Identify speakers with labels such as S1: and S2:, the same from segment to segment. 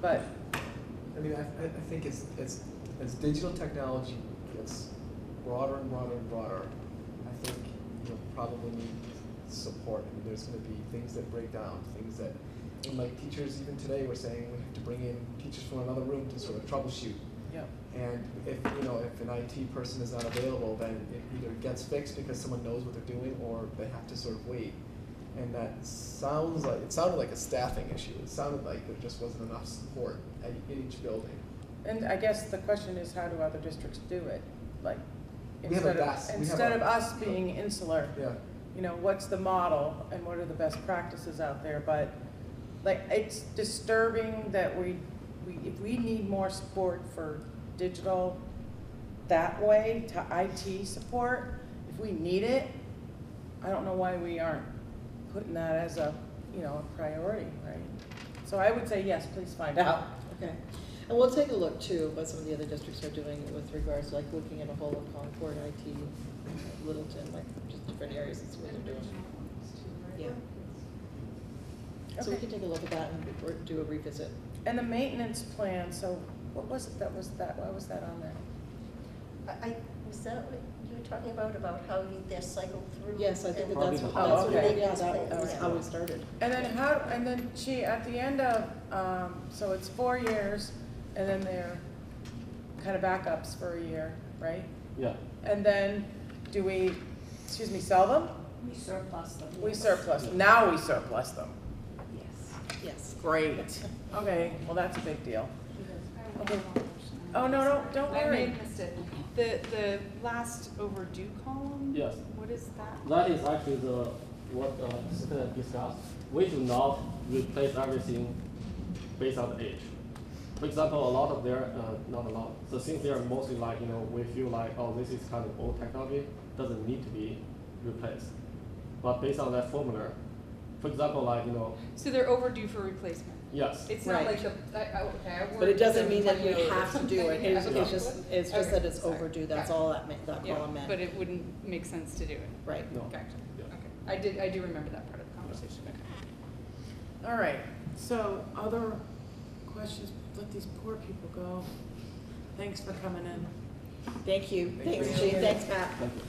S1: but
S2: I mean, I, I I think as, as, as digital technology gets broader and broader and broader, I think you'll probably need support. I mean, there's gonna be things that break down, things that, and like teachers even today were saying, we have to bring in teachers from another room to sort of troubleshoot.
S1: yeah,
S2: And if, you know, if an IT person is not available, then it either gets fixed because someone knows what they're doing or they have to sort of wait. And that sounds like, it sounded like a staffing issue. It sounded like there just wasn't enough support at, in each building.
S1: and I guess the question is how do other districts do it? Like
S2: We have a
S1: instead
S2: best-
S1: of
S2: we have
S1: instead
S2: a-
S1: of us being insular,
S2: Yeah,
S1: you know, what's the model and what are the best practices out there? But like it's disturbing that we we if we need more support for digital that way to IT support, if we need it, I don't know why we aren't putting that as a you know a priority, right? So I would say yes, please find out.
S3: Okay, and we'll take a look too, what some of the other districts are doing with regards, like looking at a whole of Concord, IT, Littleton, like just different areas, that's what they're doing. Yeah. So we
S1: Okay.
S3: can take a look at that and re- do a revisit.
S1: And the maintenance plan, so what was it that was that, why was that on there?
S4: I, I- was that what you were talking about, about how you, they're cycled through?
S3: Yes, I think that
S4: and-
S3: that's,
S2: Probably
S3: what-
S2: the-
S3: that's what,
S1: Oh, okay.
S3: yeah, that
S4: Yeah.
S3: was how we started.
S1: And then how, and then she, at the end of, um, so it's four years, and then they're kind of backups for a year, right?
S5: Yeah,
S1: And then, do we, excuse me, sell them?
S6: We surplus them.
S1: We
S6: yes.
S1: surplus, now we surplus them.
S6: Yes.
S3: Yes.
S1: Great. Okay, well, that's a big deal. Oh, no, no, don't
S7: I may
S1: worry.
S7: have missed it. The, the last overdue column?
S5: Yes.
S7: What is that?
S5: that is actually the, what uh, Susan discussed. We do not replace everything based on the age. For example, a lot of their, uh, not a lot, the things they are mostly like, you know, we feel like, oh, this is kind of old technology, doesn't need to be replaced. But based on that formula, for example, like, you know,
S7: So they're overdue for replacement.
S5: yes,
S7: It's not
S3: Right.
S7: like the, I, I, okay, I
S3: But it
S7: worded
S3: doesn't
S7: them
S3: mean that
S7: like
S3: you
S7: no or
S3: have to do it,
S7: something.
S3: it's,
S7: Okay.
S3: it's just, it's just
S7: Okay.
S3: that it's
S7: Sorry.
S3: overdue, that's
S7: Gotcha.
S3: all that meant, that
S7: Yeah,
S3: column meant.
S7: But it wouldn't make sense to do it.
S3: Right,
S5: no.
S7: Gotcha,
S5: Yeah.
S7: okay. I did, I do remember that part of the conversation, okay.
S1: All right, so other questions, let these poor people go. Thanks for coming in.
S3: thank you,
S2: Thank
S3: thanks
S2: you.
S3: Jean, thanks Matt.
S5: Thank you.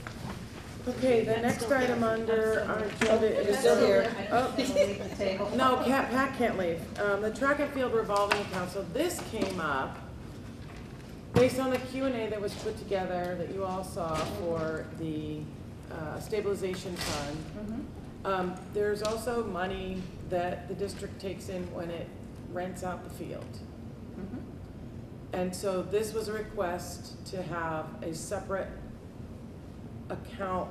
S1: Okay, the next item under our agenda is.
S3: You're still here.
S1: Oh. No, Pat, Pat can't leave. Um, the track and field revolving account, so this came up based on the Q and A that was put together that you all saw for the, uh, stabilization fund. Um, there's also money that the district takes in when it rents out the field. And so this was a request to have a separate account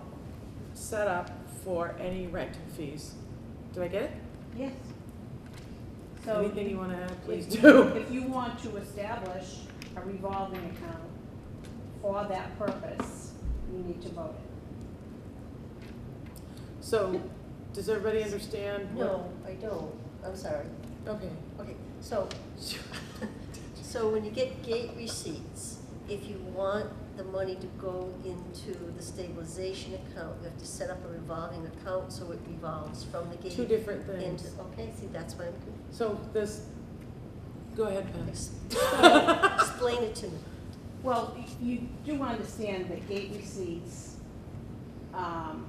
S1: set up for any rental fees. Did I get it?
S6: Yes. So.
S1: Anything you wanna add, please
S6: if-
S1: do.
S6: If you want to establish a revolving account for that purpose, you need to vote it.
S1: So, does everybody understand? what-
S4: No, I don't, I'm sorry.
S1: Okay.
S4: Okay, so, so when you get gate receipts, if you want the money to go into the stabilization account, you have to set up a revolving account so it revolves from the gate.
S1: Two different
S4: into-
S1: things.
S4: Okay, see, that's why I'm confused.
S1: So this, go ahead, Pat.
S4: Explain- Explain it to me.
S6: Well, y- you do understand that gate receipts, um,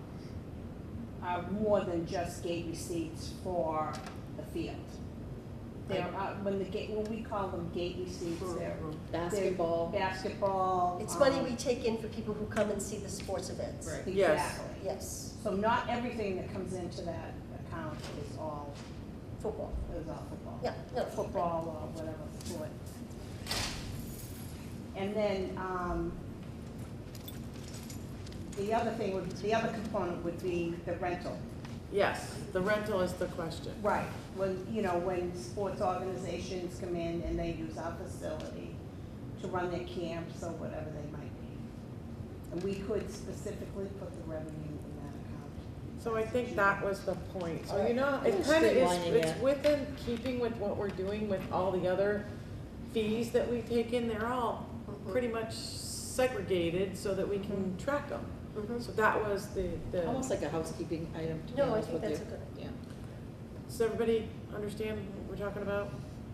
S6: are more than just gate receipts for the field. They're, uh, when the gate, when we call them gate receipts, they're.
S3: Basketball.
S6: Basketball.
S4: It's money
S6: um,
S4: we take in for people who come and see the sports events.
S3: Right.
S1: Yes.
S6: Exactly.
S4: Yes,
S6: So not everything that comes into that account is all,
S4: football,
S6: is all football.
S4: yeah, no, football.
S6: Football or whatever sport. And then, um, the other thing would, the other component would be the rental.
S1: Yes, the rental is the question.
S6: Right. When, you know, when sports organizations come in and they use our facility to run their camps or whatever they might be. And we could specifically put the revenue in that account.
S1: So I think that was the point. So you
S3: Alright.
S1: know,
S3: We're
S1: it kind of is,
S3: streamlining
S1: it's
S3: it.
S1: within keeping with what we're doing with all the other fees that we take in. They're all
S4: Mhm.
S1: pretty much segregated so that we can track them.
S4: Mhm.
S1: So that was the, the,
S3: Almost like a housekeeping item, to be
S4: No, I
S3: honest
S4: think
S3: with you.
S4: that's a good,
S3: Yeah.
S1: does everybody understand what we're talking about?